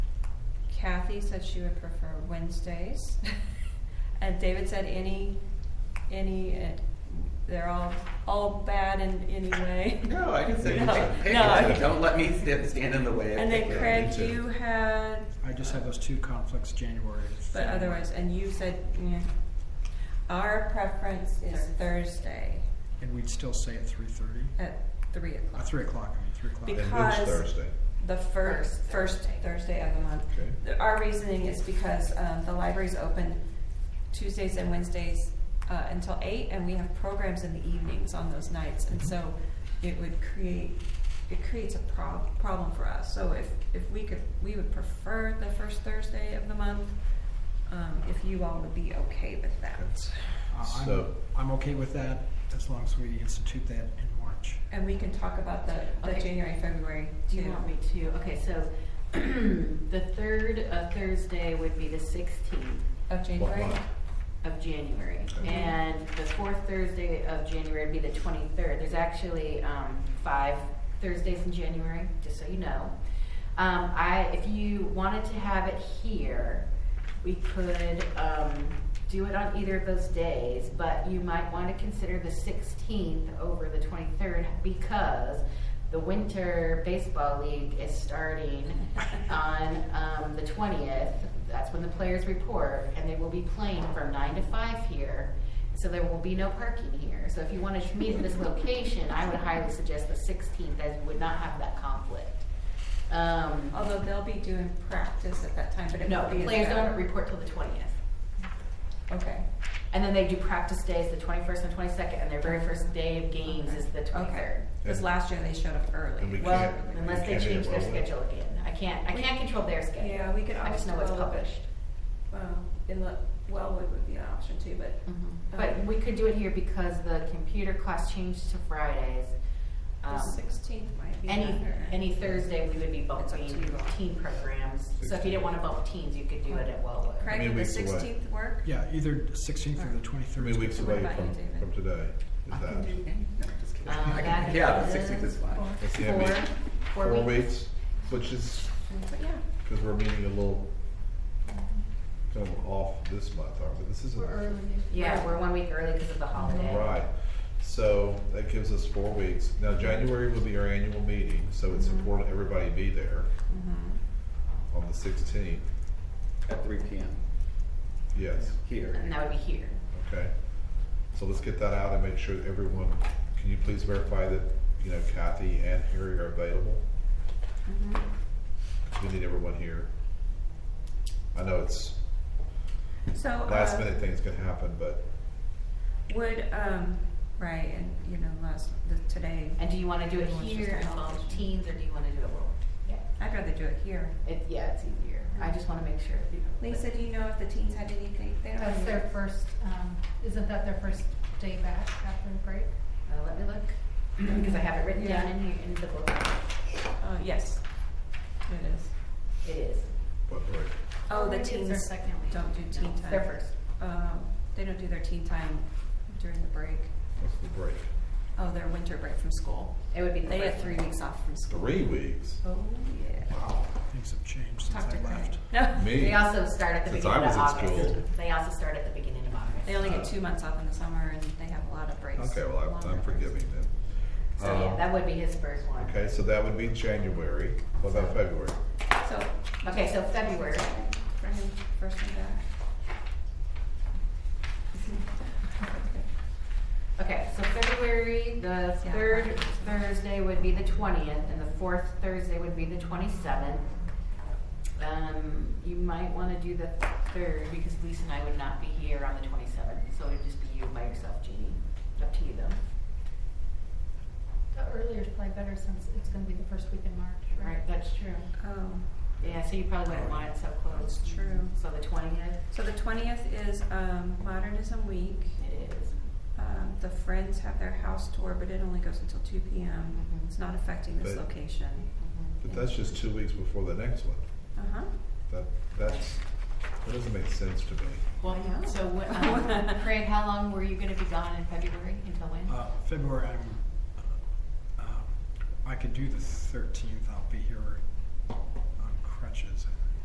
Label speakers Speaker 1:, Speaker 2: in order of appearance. Speaker 1: Kathy said she would prefer Wednesdays. And David said any, any, uh, they're all, all bad in any way.
Speaker 2: No, I can say
Speaker 1: No,
Speaker 2: pick
Speaker 1: no.
Speaker 2: one. Don't let me stand, stand in the way. Of
Speaker 1: And then
Speaker 2: picking.
Speaker 1: Craig, you had,
Speaker 3: I just have those two conflicts, January. and
Speaker 1: but
Speaker 3: February.
Speaker 1: otherwise, and you said, yeah. Our preference is Thursday
Speaker 3: And we'd still say at three thirty,
Speaker 1: at three
Speaker 3: uh,
Speaker 1: o'clock.
Speaker 3: three o'clock, I mean, three o'clock. Uh,
Speaker 4: And when's
Speaker 1: Because-
Speaker 4: Thursday?
Speaker 1: The first, first Thursday of the month.
Speaker 4: Okay.
Speaker 1: The- Our reasoning is because um, the library's open Tuesdays and Wednesdays uh, until eight, and we have programs in the evenings on those nights,
Speaker 4: Mm-hmm.
Speaker 1: and so it would create, it creates a prob- problem for us. So if, if we could, we would prefer the first Thursday of the month, um, if you all would be okay with that.
Speaker 3: Uh, I'm,
Speaker 4: So-
Speaker 3: I'm okay with that, as long as we institute that in March.
Speaker 1: And we can talk about the, the
Speaker 5: Okay.
Speaker 1: January, February
Speaker 5: Do
Speaker 1: too.
Speaker 5: you want me to? Okay, so the third uh, Thursday would be the 16th
Speaker 1: Of January?
Speaker 4: month?
Speaker 5: of January.
Speaker 4: Okay.
Speaker 5: And the fourth Thursday of January would be the 23rd. There's actually um, five Thursdays in January, just so you know. Um, I, if you wanted to have it here, we could um, do it on either of those days, but you might want to consider the 16th over the 23rd because the winter baseball league is starting on um, the 20th. That's when the players report, and they will be playing from 9 to 5 here. So there will be no parking here. So if you wanted to meet in this location, I would highly suggest the 16th, as you would not have that conflict. Um,
Speaker 1: Although they'll be doing practice at that time, but it
Speaker 5: no,
Speaker 1: won't be.
Speaker 5: the
Speaker 1: as
Speaker 5: players
Speaker 1: bad.
Speaker 5: don't report till the 20th.
Speaker 1: Okay.
Speaker 5: And then they do practice days, the 21st and 22nd, and their very first day of games is the 23rd.
Speaker 1: Okay, because
Speaker 4: And-
Speaker 1: last year they showed up
Speaker 4: and we
Speaker 1: early.
Speaker 4: can't-
Speaker 5: Well,
Speaker 4: we
Speaker 5: unless they
Speaker 4: can't
Speaker 5: change their
Speaker 4: enroll it.
Speaker 5: schedule again, I can't. I can't control their schedule.
Speaker 1: Yeah, we could
Speaker 5: I just know what's
Speaker 1: always
Speaker 5: published.
Speaker 1: Well, in the, Wellwood would be an option too, but. Mm-hmm.
Speaker 5: But we could do it here because the computer class changed to Fridays. Um,
Speaker 1: The sixteenth might be
Speaker 5: any
Speaker 1: better.
Speaker 5: any Thursday we would be
Speaker 1: It's up to
Speaker 5: bumping
Speaker 1: you all.
Speaker 5: teen programs. So if you didn't want to bump teens, you could do it at Wellwood.
Speaker 1: Craig,
Speaker 4: many
Speaker 1: would the
Speaker 4: weeks away?
Speaker 1: sixteenth work?
Speaker 3: Yeah, either sixteenth or the
Speaker 4: How
Speaker 3: twenty-third.
Speaker 4: many weeks
Speaker 1: So what
Speaker 4: away
Speaker 1: about
Speaker 4: from,
Speaker 1: you, David?
Speaker 4: from today
Speaker 3: I can
Speaker 4: is that?
Speaker 3: do-
Speaker 2: No, just kidding.
Speaker 5: Um,
Speaker 1: Uh,
Speaker 2: I
Speaker 5: that
Speaker 2: can, yeah, the
Speaker 5: is
Speaker 2: 16th is fine.
Speaker 4: It
Speaker 5: Four,
Speaker 4: can't be-
Speaker 5: four
Speaker 4: Four
Speaker 5: weeks.
Speaker 4: weeks, which is,
Speaker 1: But yeah,
Speaker 4: because we're meeting a little kind of off this month, aren't we? This isn't. our-
Speaker 5: Yeah, we're one week early because of the holiday.
Speaker 4: Right, so that gives us four weeks. Now, January will be our annual meeting, so it's
Speaker 5: Mhm.
Speaker 4: important everybody be there on the sixteenth.
Speaker 2: At 3 p.m.
Speaker 4: Yes,
Speaker 2: Here.
Speaker 5: And that would be here.
Speaker 4: okay. So let's get that out and make sure that everyone, can you please verify that, you know, Kathy and Harry are available?
Speaker 5: Mm-hmm.
Speaker 4: We need everyone here. I know it's
Speaker 1: so,
Speaker 4: last
Speaker 1: uh,
Speaker 4: minute things can happen, but
Speaker 1: would, um, right, and, you know, last, the, today,
Speaker 5: And do you want to do it
Speaker 1: Everyone's just
Speaker 5: here
Speaker 1: on
Speaker 5: involve
Speaker 1: television.
Speaker 5: teens, or do you want to do it world? Yeah,
Speaker 1: I'd rather do it here.
Speaker 5: it, yeah, it's easier. I just want to make sure. that you-
Speaker 1: Lisa, do you know if the teens had anything? They don't
Speaker 6: That's
Speaker 1: have
Speaker 6: their
Speaker 1: any-
Speaker 6: first, um, isn't that their first day back after the break?
Speaker 5: Uh, let me look because I have it written down in here in the book.
Speaker 1: Uh, yes, it is.
Speaker 5: It is.
Speaker 4: what break?
Speaker 1: Oh, the
Speaker 6: Or maybe it's their
Speaker 1: teens
Speaker 6: second week.
Speaker 1: don't do teen time.
Speaker 5: Their first.
Speaker 1: Um, they don't do their teen time during the break.
Speaker 4: What's the break?
Speaker 1: Oh, their winter break from school.
Speaker 5: It would be the
Speaker 1: They
Speaker 5: first
Speaker 1: get three
Speaker 5: one.
Speaker 1: weeks off from school.
Speaker 4: Three weeks?
Speaker 1: Oh, yeah.
Speaker 3: Wow, things have changed since
Speaker 1: Talk to
Speaker 3: I
Speaker 1: Craig.
Speaker 3: left.
Speaker 1: No.
Speaker 4: Me?
Speaker 5: They also start at the
Speaker 4: Since
Speaker 5: beginning
Speaker 4: I
Speaker 5: of
Speaker 4: was in
Speaker 5: August.
Speaker 4: school.
Speaker 5: They also start at the beginning of August.
Speaker 1: They only get two months off in the summer and they have a lot of breaks.
Speaker 4: Uh, Okay, well, I'm-
Speaker 1: longer
Speaker 4: I'm
Speaker 1: breaks.
Speaker 4: forgiving then.
Speaker 5: So yeah,
Speaker 4: Um,
Speaker 5: that would be his first one.
Speaker 4: Okay, so that would be January. What about February?
Speaker 1: So.
Speaker 5: Okay, so February.
Speaker 1: Brendan, first one back.
Speaker 5: Okay, so February, the
Speaker 1: Yeah.
Speaker 5: third Thursday would be the twentieth, and the fourth Thursday would be the twenty-seventh. Um, you might wanna do the third, because Lisa and I would not be here on the twenty-seventh, so it'd just be you by yourself, Jeannie. Up to you though,
Speaker 6: The earlier is probably better since it's gonna be the first week in March,
Speaker 5: right?
Speaker 6: right?
Speaker 5: That's true.
Speaker 1: Um,
Speaker 5: Yeah, so you probably wouldn't want it so close.
Speaker 1: That's true.
Speaker 5: So the twentieth,
Speaker 1: so the twentieth is, um, Modernism Week.
Speaker 5: it is.
Speaker 1: Um, the Friends have their house tour, but it only goes until two P M.
Speaker 5: Mhm.
Speaker 1: It's not affecting this
Speaker 4: But-
Speaker 1: location.
Speaker 4: But that's just two weeks before the next one.
Speaker 1: Uh-huh.
Speaker 4: That, that's, that doesn't make sense to me.
Speaker 5: Well,
Speaker 1: I know.
Speaker 5: so what, um, Craig, how long were you gonna be gone in February, until when?
Speaker 3: Uh, February, I'm, uh, um, I could do the thirteenth, I'll be here on crutches, I